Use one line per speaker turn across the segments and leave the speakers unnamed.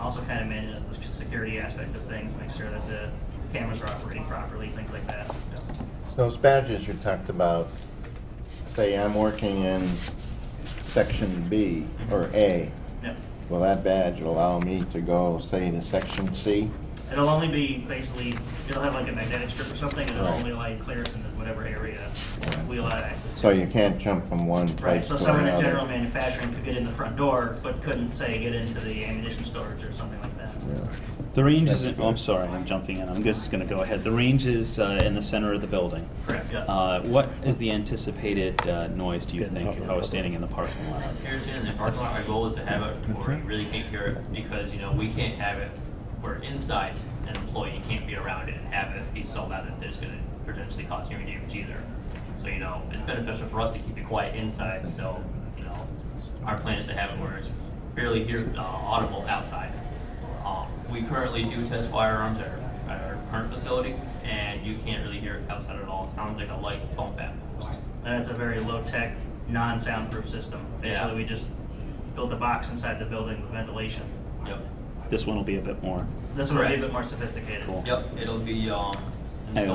also kind of manages the security aspect of things, make sure that the cameras are operating properly, things like that.
Those badges you talked about, say I'm working in section B or A,
Yep.
will that badge allow me to go, say, to section C?
It'll only be basically, it'll have like a magnetic strip or something, and it'll
Right.
only like clearance in whatever area we allow access to.
So you can't jump from one
Right,
place to
so
another?
someone in general manufacturing could get in the front door, but couldn't say get into the ammunition storage or something like that.
The range
That's
isn't,
good.
oh, I'm sorry, I'm jumping in, I'm just gonna go ahead. The range is uh, in the center of the building.
Correct, yeah.
Uh, What is the anticipated uh, noise, do you
Getting
think,
tougher
if
to
I
cover.
was standing in the parking lot?
Harrison, in the parking lot, our goal is to have it
That's
where
it.
you really can't hear it, because, you know, we can't have it where inside an employee can't be around it and have it be so loud that there's gonna potentially cause hearing damage either. So, you know, it's beneficial for us to keep it quiet inside, so, you know, our plan is to have it where it's barely hear, uh, audible outside. Um, we currently do test firearms at our, at our current facility, and you can't really hear it outside at all, it sounds like a light phone bat.
And it's a very low-tech, non-soundproof system.
Yeah.
Basically, we just built a box inside the building with ventilation.
Yep.
This one will be a bit more.
This one will be a
Correct.
bit more sophisticated.
Cool.
Yep, it'll be um,
Hang on,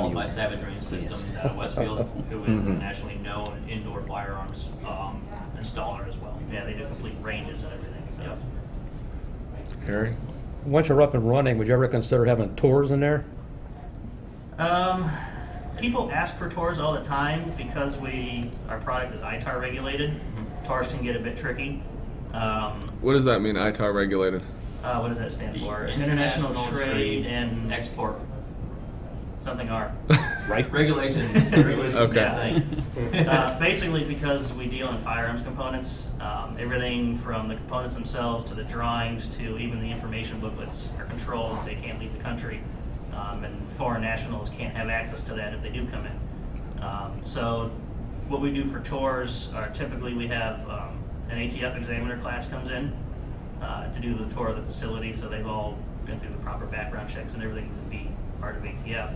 installed
you-
by Savage Range Systems
Yes.
out of Westfield, who is a
Mhm.
nationally known indoor firearms um, installer as well.
Yeah, they do complete ranges and everything, so.
Yep.
Harry?
Once you're up and running, would you ever consider having tours in there?
Um, people ask for tours all the time because we, our product is ITAR regulated. Tours can get a bit tricky. Um,
What does that mean, ITAR regulated?
uh, what does that stand for?
The
International Trade and Export,
Export
something R.
Right?
regulations. regulations
Okay.
that thing.
Uh, basically, because we deal in firearms components, um, everything from the components themselves to the drawings to even the information booklets are controlled. They can't leave the country, um, and foreign nationals can't have access to that if they do come in. Um, so, what we do for tours are typically we have um, an ATF examiner class comes in uh, to do the tour of the facility, so they've all been through the proper background checks and everything to be part of ATF.
Yeah.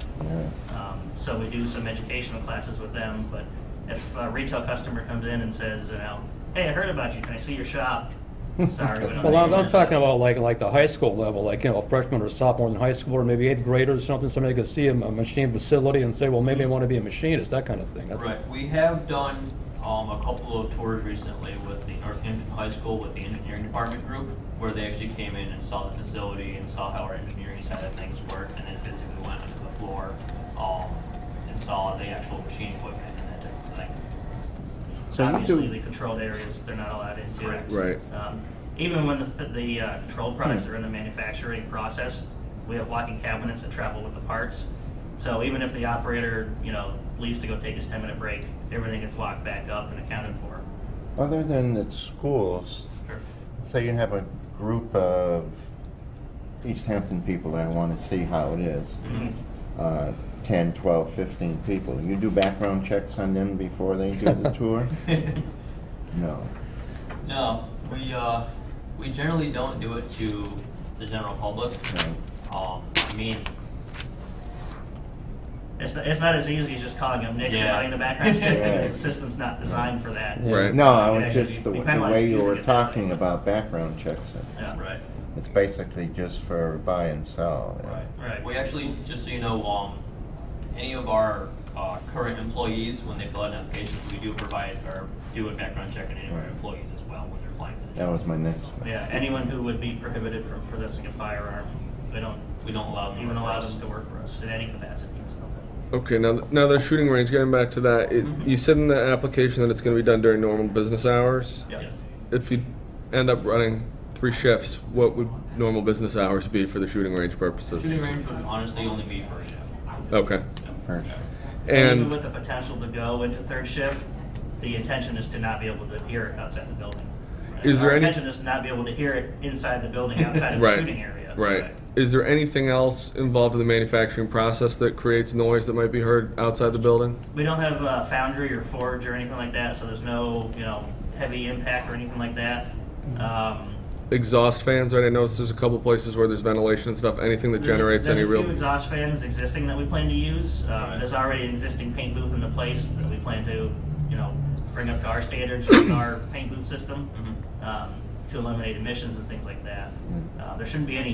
Um, so we do some educational classes with them. But if a retail customer comes in and says, you know, hey, I heard about you. Can I see your shop? Sorry, we don't.
Well, I'm,
do
I'm
this.
talking about like, like the high school level, like, you know, freshman or sophomore in high school, or maybe eighth grader or something, somebody could see a a machine facility and say, well, maybe I want to be a machinist, that kind of thing. That's-
Right, we have done um, a couple of tours recently with the Northampton High School with the engineering department group, where they actually came in and saw the facility and saw how our engineering side of things worked, and then physically went onto the floor um, and saw the actual machine equipment and that type of thing.
So you
Obviously,
do,
the controlled areas, they're not allowed into.
Correct.
Right.
Um, Even when the, th- the uh, controlled products are in the manufacturing process, we have locking cabinets that travel with the parts. So even if the operator, you know, leaves to go take his 10-minute break, everything gets locked back up and accounted for.
other than at schools,
Sure.
say you have a group of East Hampton people that want to see how it is,
Mhm.
uh, 10, 12, 15 people, you do background checks on them before they do the tour? No.
No, we, uh, we generally don't do it to the general public.
no.
Um, I mean,
It's not, it's not as easy as just calling them Nick,
Yeah.
somebody in the background check,
Yeah.
because the system's not designed for that.
Yeah.
Right.
No, I
Yeah,
was just,
you-
the
you
the
penalize
way you
using
were
it that way.
talking about background checks, it's-
Yeah.
right.
it's basically just for buy and sell.
Right,
Right.
right. We actually, just so you know, um, any of our, uh, current employees, when they fill out an application, we do provide, or do a background check on any of our
Right.
employees as well when they're applying for the
That
job.
was my next one.
Yeah, anyone who would be prohibited from possessing a firearm, we don't
We don't allow them. to
even allow
cross.
them to work for us in any capacity. so.
Okay, now, th- now the shooting range, getting back to that, it,
Mm-hmm.
you said in the application that it's going to be done during normal business hours.
Yeah.
Yes.
If you end up running three shifts, what would normal business hours be for the shooting range purposes?
Shooting range would honestly only be for a shift.
Okay.
First.
Even
And
with the potential to go into third shift, the intention is to not be able to hear it outside the building.
Is there
Our
any-
intention is to not be able to hear it inside the building, outside of the
Right.
shooting area.
right. Is there anything else involved in the manufacturing process that creates noise that might be heard outside the building?
We don't have uh, foundry or forge or anything like that, so there's no, you know, heavy impact or anything like that. Um,
Exhaust fans, right? I noticed there's a couple places where there's ventilation and stuff. Anything that
There's-
generates any
There's a
real.
few exhaust fans existing that we plan to use. Um,
Right.
There's already an existing paint booth in the place that we plan to, you know, bring up to our standards with our paint booth system.
Mhm.
Um, to eliminate emissions and things like that. Uh, There shouldn't be any